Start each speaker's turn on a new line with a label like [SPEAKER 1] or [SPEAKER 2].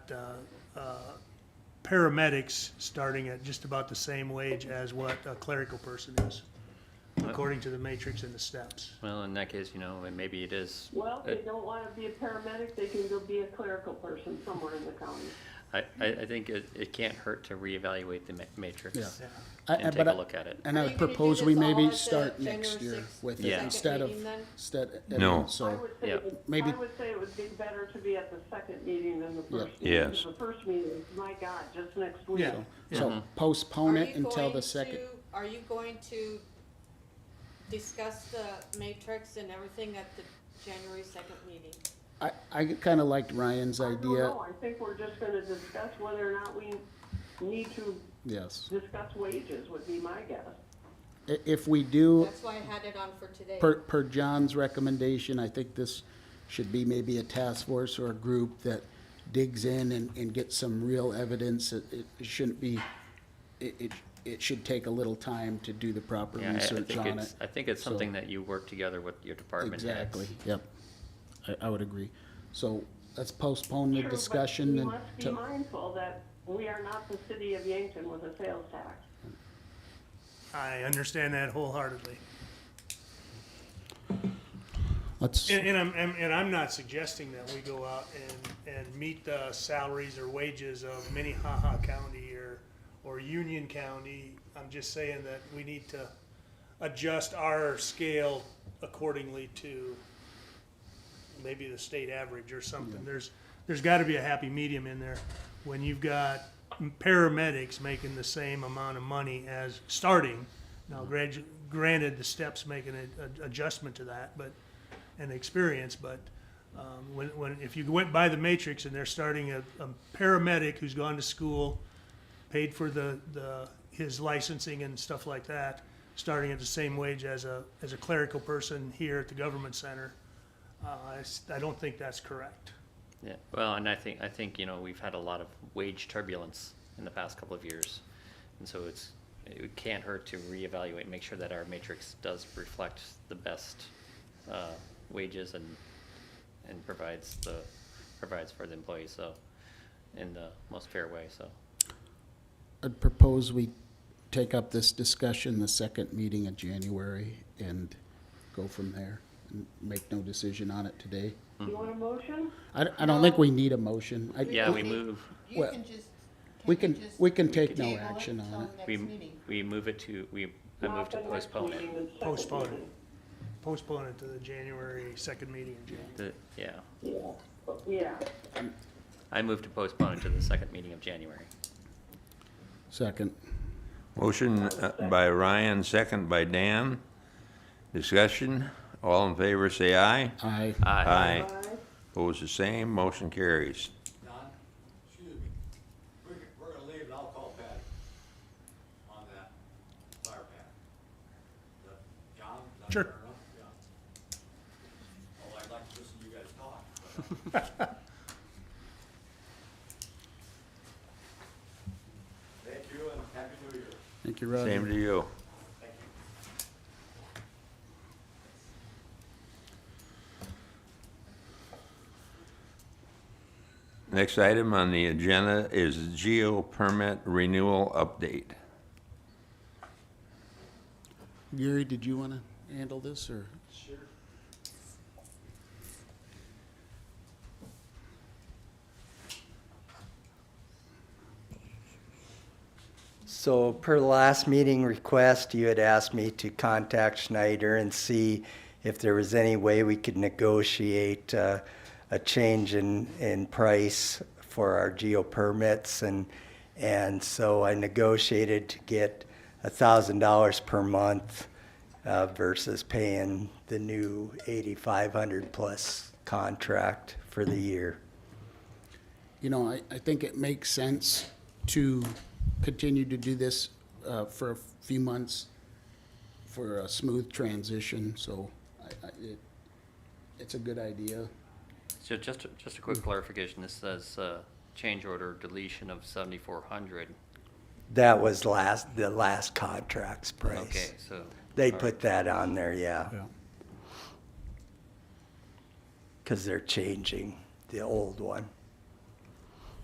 [SPEAKER 1] uh, uh, paramedics starting at just about the same wage as what a clerical person is, according to the matrix and the steps.
[SPEAKER 2] Well, in that case, you know, and maybe it is.
[SPEAKER 3] Well, if
[SPEAKER 2] it-
[SPEAKER 3] they don't want to be a paramedic, they can go be a clerical person somewhere in the county.
[SPEAKER 2] I, I, I think it, it can't hurt to reevaluate the ma-
[SPEAKER 4] Yeah.
[SPEAKER 2] matrix
[SPEAKER 4] I- I-
[SPEAKER 2] and take
[SPEAKER 4] but
[SPEAKER 2] a
[SPEAKER 4] I-
[SPEAKER 2] look at it.
[SPEAKER 4] And I
[SPEAKER 5] Are
[SPEAKER 4] would
[SPEAKER 5] you gonna do
[SPEAKER 4] propose we
[SPEAKER 5] this all
[SPEAKER 4] maybe
[SPEAKER 5] at the
[SPEAKER 4] start
[SPEAKER 5] January
[SPEAKER 4] next year
[SPEAKER 5] 6th
[SPEAKER 4] with it
[SPEAKER 2] Yeah.
[SPEAKER 4] instead of,
[SPEAKER 5] meeting then?
[SPEAKER 4] instead.
[SPEAKER 6] No.
[SPEAKER 3] I
[SPEAKER 4] So,
[SPEAKER 3] would say,
[SPEAKER 2] yeah,
[SPEAKER 3] it-
[SPEAKER 4] maybe-
[SPEAKER 3] I would say it would be better to be at the second meeting than the first.
[SPEAKER 6] Yeah.
[SPEAKER 3] meeting.
[SPEAKER 6] Yes.
[SPEAKER 3] The first meeting, my God, just next week.
[SPEAKER 1] Yeah, yeah.
[SPEAKER 2] Mm-hmm.
[SPEAKER 4] so postpone
[SPEAKER 5] Are
[SPEAKER 4] it
[SPEAKER 5] you
[SPEAKER 4] until
[SPEAKER 5] going
[SPEAKER 4] the second.
[SPEAKER 5] to- Are you going to discuss the matrix and everything at the January second meeting?
[SPEAKER 4] I, I kinda liked Ryan's
[SPEAKER 3] I don't
[SPEAKER 4] idea,
[SPEAKER 3] know. I think we're just going to discuss whether or not we need to
[SPEAKER 4] yes.
[SPEAKER 3] discuss wages would be my guess.
[SPEAKER 4] I- If we do,
[SPEAKER 5] That's why I had it on for today.
[SPEAKER 4] per, per John's recommendation, I think this should be maybe a task force or a group that digs in and, and gets some real evidence. It, it shouldn't be, it, it, it should take a little time to do the proper
[SPEAKER 2] Yeah, I- I
[SPEAKER 4] research
[SPEAKER 2] think
[SPEAKER 4] on
[SPEAKER 2] it's,
[SPEAKER 4] it.
[SPEAKER 2] I think it's something that you work together with your department heads.
[SPEAKER 4] Exactly, yep. I, I would agree. So let's postpone the
[SPEAKER 3] Sure, but
[SPEAKER 4] discussion
[SPEAKER 3] We
[SPEAKER 4] and.
[SPEAKER 3] must be
[SPEAKER 4] till-
[SPEAKER 3] mindful that we are not the city of Yankton with a sales tax.
[SPEAKER 1] I understand that wholeheartedly.
[SPEAKER 4] Let's,
[SPEAKER 1] And, and I'm, and, and I'm not suggesting that we go out and, and meet the salaries or wages of Minnehaha County or, or Union County. I'm just saying that we need to adjust our scale accordingly to maybe the state average or something. There's, there's gotta be a happy medium in there when you've got paramedics making the same amount of money as starting. Now, gradu granted, the steps make an ad- adjustment to that, but and experience, but um, when, when if you went by the matrix and they're starting a, a paramedic who's gone to school, paid for the, the his licensing and stuff like that, starting at the same wage as a as a clerical person here at the government center, uh, I, s- I don't think that's correct.
[SPEAKER 2] Yeah, well, and I think, I think, you know, we've had a lot of wage turbulence in the past couple of years. And so it's, it can't hurt to reevaluate, make sure that our matrix does reflect the best, uh, wages and, and provides the, provides for the employees, so, in the most fair way, so.
[SPEAKER 4] I'd propose we take up this discussion the second meeting in January and go from there and make no decision on it today.
[SPEAKER 2] Hmm.
[SPEAKER 3] You want a motion?
[SPEAKER 4] I, don't- I don't think we need a motion. I-
[SPEAKER 2] Yeah, we
[SPEAKER 4] we-
[SPEAKER 2] move,
[SPEAKER 7] You
[SPEAKER 4] Well,
[SPEAKER 7] can just.
[SPEAKER 4] We can,
[SPEAKER 7] just
[SPEAKER 4] we can take no
[SPEAKER 7] table it
[SPEAKER 4] action
[SPEAKER 7] till
[SPEAKER 4] on it.
[SPEAKER 7] next
[SPEAKER 2] we,
[SPEAKER 7] meeting?
[SPEAKER 2] we move it to, we, I
[SPEAKER 3] Not
[SPEAKER 2] move to
[SPEAKER 3] the next
[SPEAKER 2] postpone
[SPEAKER 3] meeting,
[SPEAKER 2] it.
[SPEAKER 3] the second
[SPEAKER 1] Postpone it.
[SPEAKER 3] meeting.
[SPEAKER 1] Postpone it to the January second meeting in January.
[SPEAKER 2] The- Yeah,
[SPEAKER 3] Yeah, But- yeah.
[SPEAKER 2] I move to postpone it to the second meeting of January.
[SPEAKER 4] Second,
[SPEAKER 6] Motion uh, by Ryan, second by Dan. Discussion, all in favor, say aye.
[SPEAKER 4] aye.
[SPEAKER 2] Uh,
[SPEAKER 6] Aye.
[SPEAKER 3] Aye.
[SPEAKER 6] Opposed, the same, motion carries.
[SPEAKER 8] Don, excuse me, we're, we're gonna leave and I'll call Patty on that fire pad. Is that- John? is that
[SPEAKER 1] Sure.
[SPEAKER 8] fair enough? Yeah. Oh, I'd like to listen to you guys talk, but uh, Thank you and happy new year.
[SPEAKER 4] Thank you, Roger.
[SPEAKER 6] Same to you.
[SPEAKER 8] Thank you.
[SPEAKER 6] Next item on the agenda is geo permit renewal update.
[SPEAKER 4] Gary, did you want to handle this, or?
[SPEAKER 9] So per the last meeting request, you had asked me to contact Schneider and see if there was any way we could negotiate uh, a change in, in price for our geo permits. And, and so I negotiated to get $1,000 per month uh, versus paying the new 8,500 plus contract for the year.
[SPEAKER 4] you know, I, I think it makes sense to continue to do this uh, for a few months for a smooth transition, so I, I, it, it's a good idea.
[SPEAKER 2] So just, just a quick clarification, this says, uh, change order deletion of seventy-four hundred.
[SPEAKER 9] That was last, the last contract's price.
[SPEAKER 2] Okay, so.
[SPEAKER 9] They
[SPEAKER 2] all right.
[SPEAKER 9] put that on there, yeah,
[SPEAKER 4] Yeah.
[SPEAKER 9] because they're changing the old one.